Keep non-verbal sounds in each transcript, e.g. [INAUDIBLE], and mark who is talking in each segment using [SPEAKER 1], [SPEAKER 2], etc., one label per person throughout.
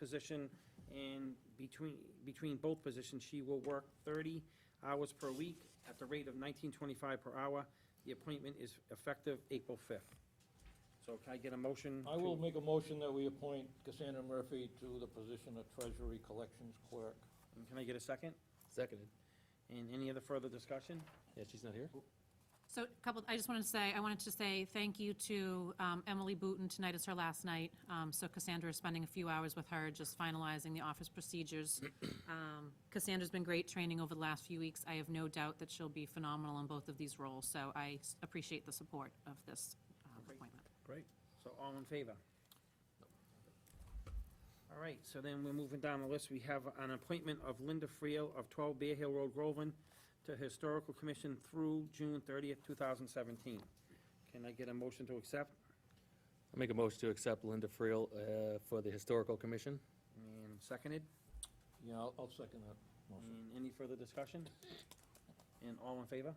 [SPEAKER 1] position, and between, between both positions, she will work thirty hours per week at the rate of nineteen twenty-five per hour. The appointment is effective April fifth. So can I get a motion?
[SPEAKER 2] I will
[SPEAKER 1] to-
[SPEAKER 2] make a motion that we appoint Cassandra Murphy to the position of Treasury Collections Clerk.
[SPEAKER 1] and Can I get a second?
[SPEAKER 3] Seconded.
[SPEAKER 1] And any other further discussion?
[SPEAKER 3] Yeah, she's not here?
[SPEAKER 4] So a couple, I just wanted to say, I wanted to say thank you to um, Emily Booton. Tonight is her last night. Um, So Cassandra is spending a few hours with her, just finalizing the
[SPEAKER 1] [CLEARS THROAT]
[SPEAKER 4] office procedures. Um, Cassandra's been great training over the last few weeks. I have no doubt that she'll be phenomenal in both of these roles, so I s- appreciate the support of this um,
[SPEAKER 1] Great.
[SPEAKER 4] appointment.
[SPEAKER 1] Great. So all in favor? All right, so then we're moving down the list. We have an appointment of Linda Friel of 12 Bear Hill Road, Groveland, to Historical Commission through June 30th, 2017. Can I get a motion to accept?
[SPEAKER 3] I make a motion to accept Linda Friel uh, for the Historical Commission.
[SPEAKER 1] And seconded?
[SPEAKER 2] Yeah, I'll, I'll second that motion.
[SPEAKER 1] And any further discussion? And all in favor?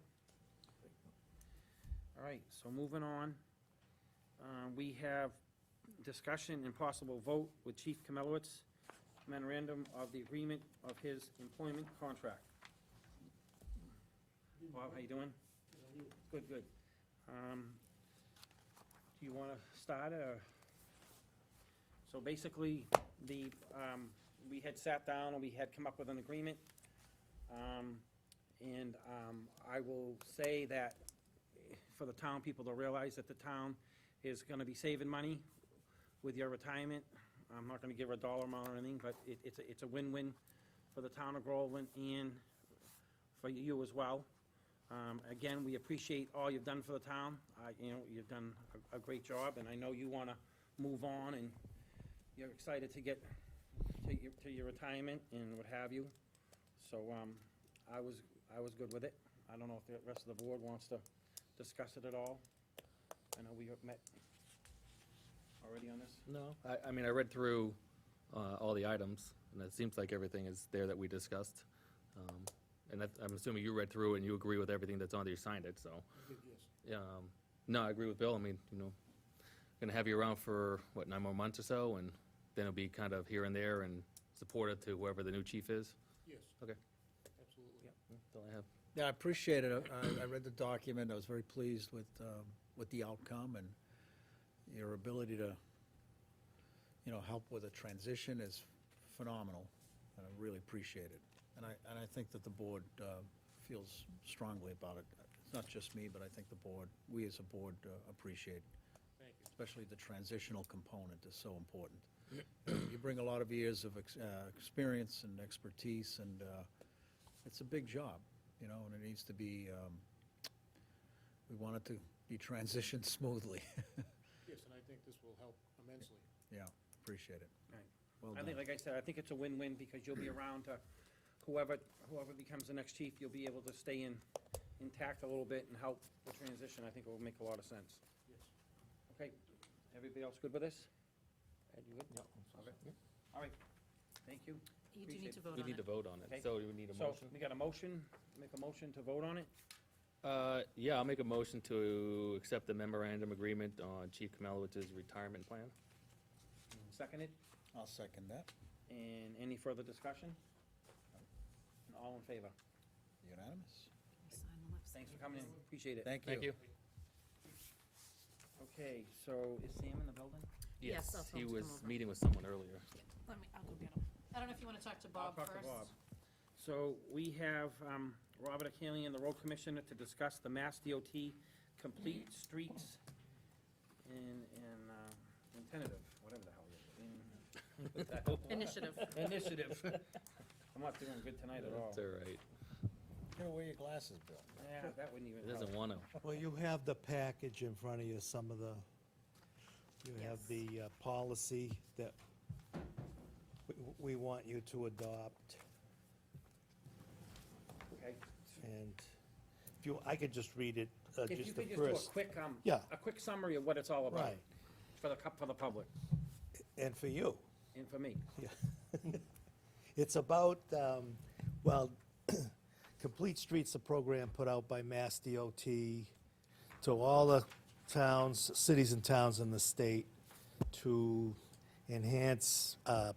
[SPEAKER 1] All right, so moving on, uh, we have discussion and possible vote with Chief Kamelowitz, memorandum of the agreement of his employment contract. Bob, how you doing? Good, good. Um, Do you want to start, or? So basically, the, um, we had sat down and we had come up with an agreement. Um, And um, I will say that for the town people to realize that the town is gonna be saving money with your retirement. I'm not gonna give a dollar amount or anything, but it, it's, a- it's a win-win for the town of Groveland and for you as well. Um, Again, we appreciate all you've done for the town. I, you know, you've done a, a great job, and I know you wanna move on and you're excited to get to your, to your retirement and what have you. So, um, I was, I was good with it. I don't know if the rest of the board wants to discuss it at all. I know we have met already on this.
[SPEAKER 3] No. I, I mean, I read through uh, all the items, and it seems like everything is there that we discussed. Um, And that- I'm assuming you read through and you agree with everything that's on there, you signed it, so. Yeah, um, No, I agree with Bill. I mean, you know, gonna have you around for, what, nine more months or so? And then it'll be kind of here and there and supportive to whoever the new chief is.
[SPEAKER 5] Yes.
[SPEAKER 3] Okay.
[SPEAKER 5] Absolutely.
[SPEAKER 3] That's all I have.
[SPEAKER 5] Yeah, I appreciate it. I, I read the document. I was very pleased with, um, with the outcome and your ability to, you know, help with a transition is phenomenal, and I really appreciate it. And I, and I think that the board, uh, feels strongly about it. It's not just me, but I think the board, we as a board uh, appreciate. Thank you. Especially the transitional component is so important. You bring a lot of years of, ex- uh, experience and expertise, and, uh, it's a big job, you know, and it needs to be, um, we want it to be transitioned [LAUGHS] smoothly.
[SPEAKER 6] Yes, and I think this will help immensely.
[SPEAKER 5] Yeah, appreciate it.
[SPEAKER 1] Right.
[SPEAKER 5] Well
[SPEAKER 1] I think,
[SPEAKER 5] done.
[SPEAKER 1] like I said, I think it's a win-win because you'll be around to whoever, whoever becomes the next chief, you'll be able to stay in intact a little bit and help the transition. I think it will make a lot of sense.
[SPEAKER 6] Yes.
[SPEAKER 1] Okay, everybody else good with this? Ed, you good?
[SPEAKER 2] Yeah, I'll second.
[SPEAKER 1] All right, thank you.
[SPEAKER 4] You do need to
[SPEAKER 1] Appreciate
[SPEAKER 4] vote
[SPEAKER 3] We
[SPEAKER 4] on
[SPEAKER 3] need to
[SPEAKER 4] it.
[SPEAKER 3] vote on
[SPEAKER 1] Okay.
[SPEAKER 3] it, so we need a
[SPEAKER 1] So,
[SPEAKER 3] motion.
[SPEAKER 1] we got a motion, make a motion to vote on it?
[SPEAKER 3] Uh, yeah, I'll make a motion to accept the memorandum agreement on Chief Kamalowitz's retirement plan.
[SPEAKER 1] Second it,
[SPEAKER 5] I'll second that,
[SPEAKER 1] and any further discussion? And all in favor?
[SPEAKER 5] unanimous.
[SPEAKER 4] Sign the left side.
[SPEAKER 1] Thanks for coming in, appreciate it.
[SPEAKER 5] Thank you.
[SPEAKER 3] Thank you.
[SPEAKER 1] Okay, so is Sam in the building?
[SPEAKER 4] Yes, I'll
[SPEAKER 3] He
[SPEAKER 4] tell him to
[SPEAKER 3] was
[SPEAKER 4] come over.
[SPEAKER 3] meeting with someone earlier.
[SPEAKER 4] Let me, I'll go get him. I don't know if you want to talk to Bob
[SPEAKER 1] talk
[SPEAKER 4] first?
[SPEAKER 1] to Bob. So we have um, Robert Akalian and the road commissioner to discuss the Mass DOT complete streets in, in, uh, in tentative, whatever the hell
[SPEAKER 7] [LAUGHS]
[SPEAKER 1] it is. [LAUGHS]
[SPEAKER 4] Initiative.
[SPEAKER 1] in- Initiative. I'm not doing good tonight at all.
[SPEAKER 3] It's all right.
[SPEAKER 5] Here, wear your glasses, Bill.
[SPEAKER 1] Yeah, that wouldn't even
[SPEAKER 3] He
[SPEAKER 1] help.
[SPEAKER 3] doesn't want to.
[SPEAKER 7] Well, you have the package in front of you, some of the, you have the uh, policy that we- we want you to adopt.
[SPEAKER 1] Okay.
[SPEAKER 7] Uh, And if you, I could just read it, uh,
[SPEAKER 1] If you
[SPEAKER 7] just the
[SPEAKER 1] could just do a
[SPEAKER 7] first.
[SPEAKER 1] quick, um,
[SPEAKER 7] Yeah.
[SPEAKER 1] a quick summary of what it's all about
[SPEAKER 7] Right,
[SPEAKER 1] for the, cup for the public
[SPEAKER 7] and for you.
[SPEAKER 1] and for me.
[SPEAKER 7] It's about, um, well, [COUGHS] Complete Streets, a program put out by Mass DOT to all the towns, cities and towns in the state to enhance uh,